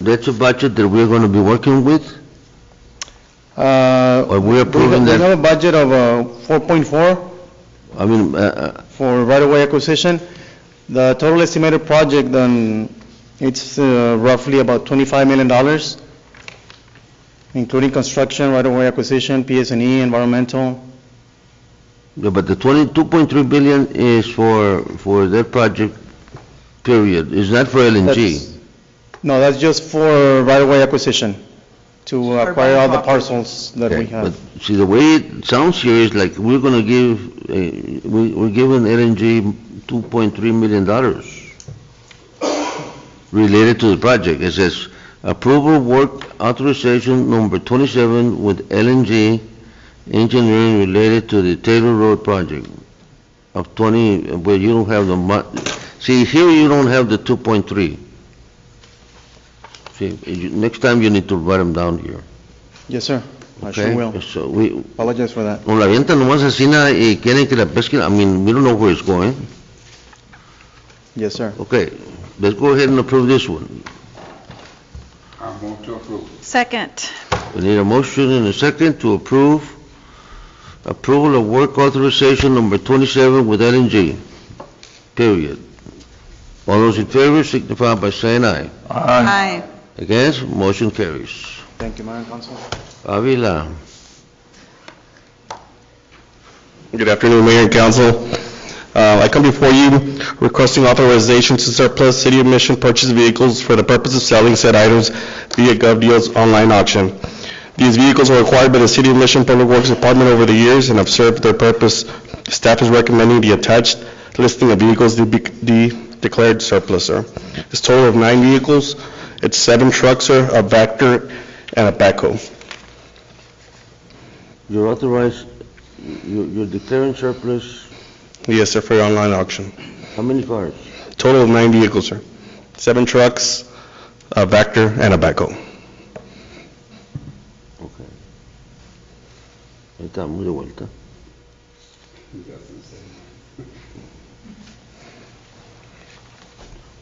That's a budget that we're going to be working with, Uh, or we're We have approving we that, have a budget of uh, 4.4 I mean, uh, for right-of-way acquisition. The total estimated project, then, it's uh, roughly about $25 million, including construction, right-of-way acquisition, PS&E, E, environmental. uh, but the 22.3 billion is for, for that project, period. It's not for That's- LNG. No, that's just for right-of-way acquisition, to acquire all the parcels that we Okay, have. But see, the way it sounds here is like we're going to give, uh, we- we're giving LNG 2.3 million dollars related to the project. It says approval work authorization number 27 with LNG engineering related to the Taylor Road project of 20, uh, but you don't have the mon, see, here you don't have the 2.3. See, you- next time you need to write them down here. Yes, sir. I sure Okay? will. So we, Apologize for that. o la avientan nomás así nada y quieren que la pesquen, I mean, we don't know where it's going. Yes, sir. Okay, let's go ahead and approve this one. I move to approve. Second. We need a motion and a second to approve approval of work authorization number 27 with LNG, period. All those in favor signify by saying aye. Aye. Against, motion carries. Thank you, Mayor and Council. Avila. Good afternoon, Mayor and Council. Uh, I come before you requesting authorization to surplus City of Mission purchased vehicles for the purpose of selling said items via GovDeals online auction. These vehicles were acquired by the City of Mission Public Works Department over the years and have served their purpose. Staff is recommending the attached listing of vehicles to be de- declared surplus, sir. It's a total of nine vehicles. It's seven trucks, sir, a Vector, and a backhoe. You're authorized, you- you're declaring surplus, Yes, sir, for your online auction. how many cars? Total of nine vehicles, sir. Seven trucks, a Vector, and a backhoe. Okay. Ahí estamos de vuelta.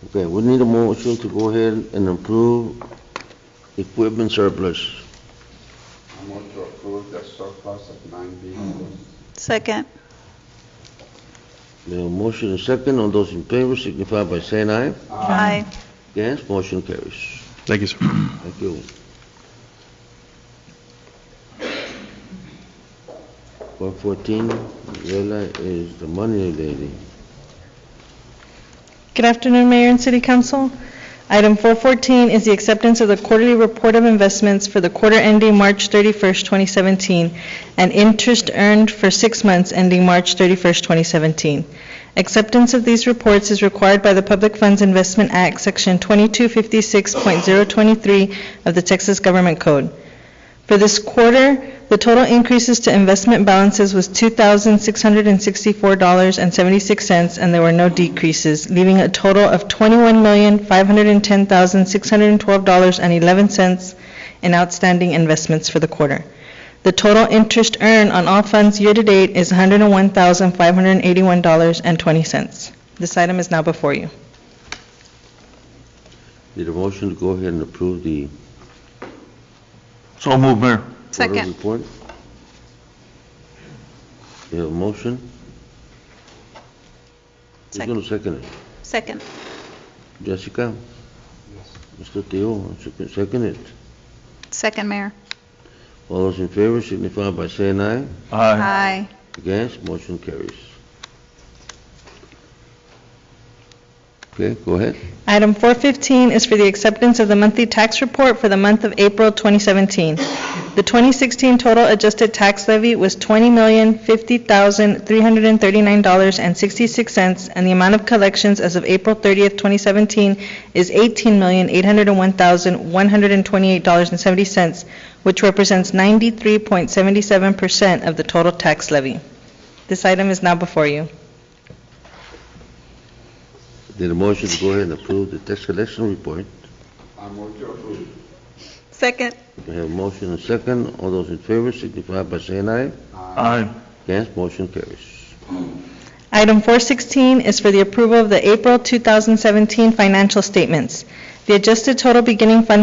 Okay, we need a motion to go ahead and approve equipment surplus. I move to approve the surplus of nine vehicles. Second. The motion is second, all those in favor signify by saying aye. Aye. Against, motion carries. Thank you, sir. Thank you. One fourteen, Vela is the money lady. Good afternoon, Mayor and City Council. Item 414 is the acceptance of the quarterly report of investments for the quarter ending March 31st, 2017, and interest earned for six months ending March 31st, 2017. Acceptance of these reports is required by the Public Funds Investment Act, Section 2256.023 of the Texas Government Code. For this quarter, the total increases to investment balances was $2,664.76, and there were no decreases, leaving a total of $21,510,612.11 in outstanding investments for the quarter. The total interest earned on all funds year-to-date is $101,581.20. This item is now before you. Need a motion to go ahead and approve the So move, Mayor. Quarterly Second. report. You have a motion? Who's Second. going to second it? Second. Jessica? Mr. Teo, second- second it. Second, Mayor. All those in favor signify by saying aye. Aye. Aye. Against, motion carries. Okay, go ahead. Item 415 is for the acceptance of the monthly tax report for the month of April 2017. The 2016 total adjusted tax levy was $20,050,339.66, and the amount of collections as of April 30th, 2017 is $18,801,128.70, which represents 93.77% of the total tax levy. This item is now before you. Need a motion to go ahead and approve the tax collection report. I move to approve. Second. We have a motion and second. All those in favor signify by saying aye. Aye. Against, motion carries. Item 416 is for the approval of the April 2017 financial statements. The adjusted total beginning fund